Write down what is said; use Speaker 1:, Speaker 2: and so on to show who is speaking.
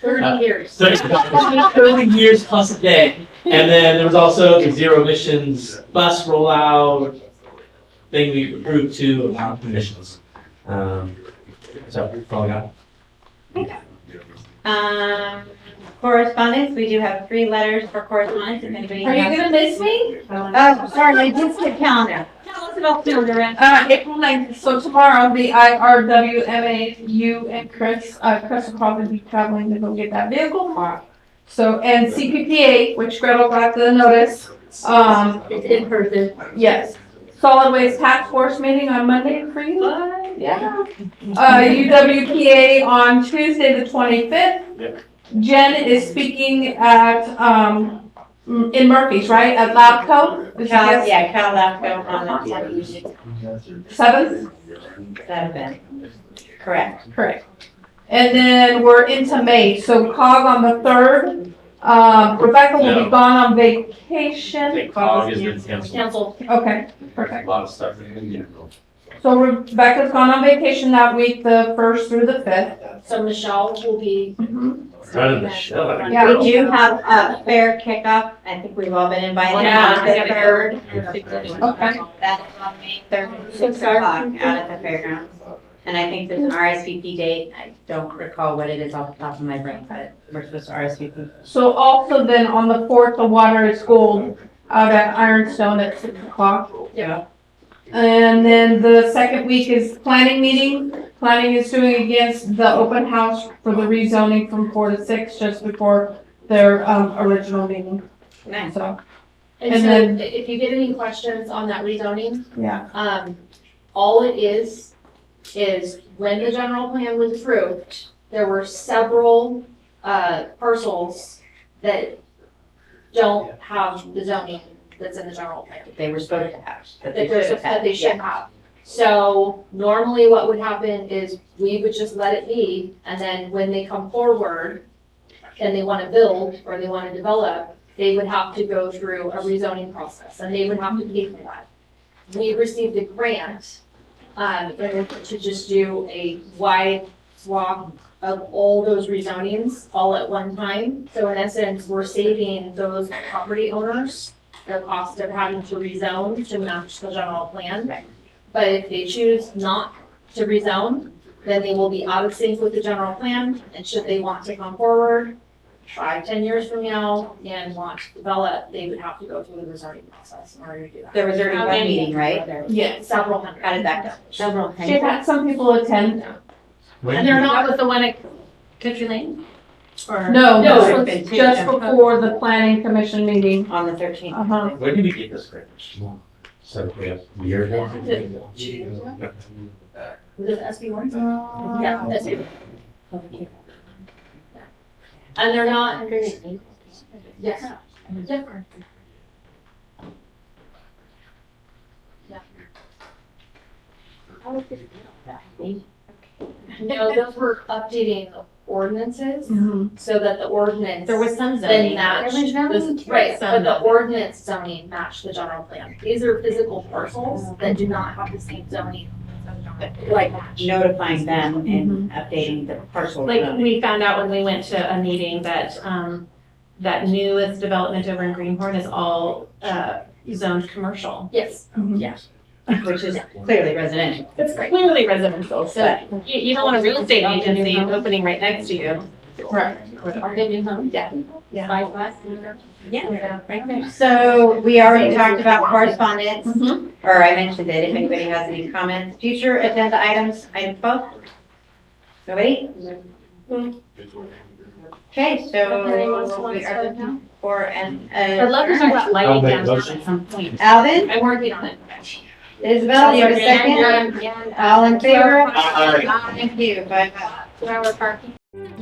Speaker 1: Thirty years.
Speaker 2: So it's about 30 years plus a day. And then there was also the zero emissions bus rollout thing we approved to allow emissions. Um, so that's all I got.
Speaker 3: Um, correspondence, we do have three letters for correspondence, if anybody
Speaker 1: Are you
Speaker 3: has.
Speaker 1: gonna miss me?
Speaker 3: Oh, sorry, I did skip calendar. Tell us about calendar, Ren.
Speaker 1: Uh, April ninth, so tomorrow, the IRWMA, you and Chris, uh, Chris will probably be traveling to go get that vehicle tomorrow. So, and CPPA, which Gretel got the notice, um,
Speaker 4: It's in person.
Speaker 1: yes. Solid Waste Task Force meeting on Monday for you. Yeah. Uh, UWPA on Tuesday, the twenty-fifth. Jen is speaking at, um, in Murphy's, right, at Labco? Is
Speaker 3: Cal,
Speaker 1: that-
Speaker 3: yeah, Cal Lapco on the town music,
Speaker 1: Seventh?
Speaker 3: that event, correct.
Speaker 1: Correct. And then we're into May, so COG on the third. Um, Rebecca will be
Speaker 2: No.
Speaker 1: gone on vacation.
Speaker 2: Cog has been canceled.
Speaker 4: Council.
Speaker 1: Okay,
Speaker 2: A
Speaker 1: perfect.
Speaker 2: lot of stuff.
Speaker 1: So Rebecca's gone on vacation that week, the first through the fifth.
Speaker 4: So Michelle will be.
Speaker 2: Running the show.
Speaker 1: Yeah.
Speaker 3: We do have a fair kickoff, I think we've all been invited
Speaker 4: Yeah,
Speaker 3: on
Speaker 4: I
Speaker 3: the
Speaker 4: got it.
Speaker 3: third.
Speaker 1: Okay.
Speaker 3: That's on May third,
Speaker 4: Six
Speaker 3: six o'clock
Speaker 4: hours.
Speaker 3: out at the fairgrounds. And I think there's an RSVP date, I don't recall what it is off the top of my brain, but we're supposed to RSVP.
Speaker 1: So also then on the fourth, the water is gold uh, out at Ironstone at six o'clock.
Speaker 3: Yeah.
Speaker 1: And then the second week is planning meeting. Planning is doing against the open house for the rezoning from four to six, just before their, um, original meeting.
Speaker 3: Nice.
Speaker 1: So,
Speaker 4: And
Speaker 1: And
Speaker 4: so
Speaker 1: then-
Speaker 4: if you get any questions on that rezoning,
Speaker 1: yeah.
Speaker 4: um, all it is, is when the general plan was approved, there were several, uh, parcels that don't have the zoning that's in the general plan.
Speaker 3: They were supposed to have. but
Speaker 4: that
Speaker 3: they
Speaker 4: they're,
Speaker 3: should have,
Speaker 4: that they
Speaker 3: yeah.
Speaker 4: should have. So normally what would happen is we would just let it be, and then when they come forward and they wanna build or they wanna develop, they would have to go through a rezoning process, and they would have to pay for that. We received a grant, um, in order to just do a wide swath of all those rezonings all at one time. So in essence, we're saving those property owners the cost of having to rezone to match the general plan. But if they choose not to rezone, then they will be out of sync with the general plan, and should they want to come forward five, ten years from now and want to develop, they would have to go through the rezoning process in order to do that.
Speaker 3: There was already
Speaker 4: How
Speaker 3: one
Speaker 4: many?
Speaker 3: meeting, right?
Speaker 1: Yes.
Speaker 4: Several hundred.
Speaker 3: How did that go? Several.
Speaker 1: She had some people attend.
Speaker 5: And they're not with the one at Country Lane? Or-
Speaker 4: No,
Speaker 1: No, no,
Speaker 3: it's been
Speaker 1: just
Speaker 3: taken.
Speaker 1: before the planning commission meeting.
Speaker 3: On the thirteenth.
Speaker 1: Uh-huh.
Speaker 2: Where did we get this grant? So we have a year ago?
Speaker 4: Was it SB one? Yeah,
Speaker 3: Oh.
Speaker 1: Yeah.
Speaker 4: SB. And they're not, yes. No, those were updating ordinances
Speaker 1: Mhm.
Speaker 4: so that the ordinance.
Speaker 3: Mm-hmm. There was some
Speaker 4: Then
Speaker 3: zoning.
Speaker 4: matched, this- right, but the ordinance zoning matched the general plan. These are physical parcels that do not have the same zoning.
Speaker 3: Like notifying them
Speaker 4: Mm-hmm.
Speaker 3: and updating the parcel.
Speaker 5: Like, we found out when we went to a meeting that, um, that newest development over in Greenhorn is all, uh, zoned commercial.
Speaker 4: Yes,
Speaker 3: Which is clearly residential.
Speaker 5: It's clearly residential, so
Speaker 3: But
Speaker 5: you, you don't want a real estate agency opening right next to you.
Speaker 1: Right.
Speaker 4: our new home, yeah.
Speaker 5: Yeah.
Speaker 4: By bus.
Speaker 3: Yeah, right there. So we already talked about correspondence,
Speaker 4: Mm-hmm.
Speaker 3: or I mentioned it, if anybody has any comments. Future agenda items, item twelve? Nobody? Okay,
Speaker 4: Nobody wants to
Speaker 3: so we
Speaker 4: start
Speaker 3: are
Speaker 4: now?
Speaker 3: looking for an. uh,
Speaker 5: I'd love to talk about
Speaker 2: I'll
Speaker 5: lighting
Speaker 2: make a
Speaker 5: downtown
Speaker 2: motion.
Speaker 5: at some point.
Speaker 3: Alvin,
Speaker 4: I'm working on it.
Speaker 3: Isabel, you have a second? All in favor?
Speaker 2: Aye.
Speaker 3: Thank you, bye bye.
Speaker 4: Two hour parking.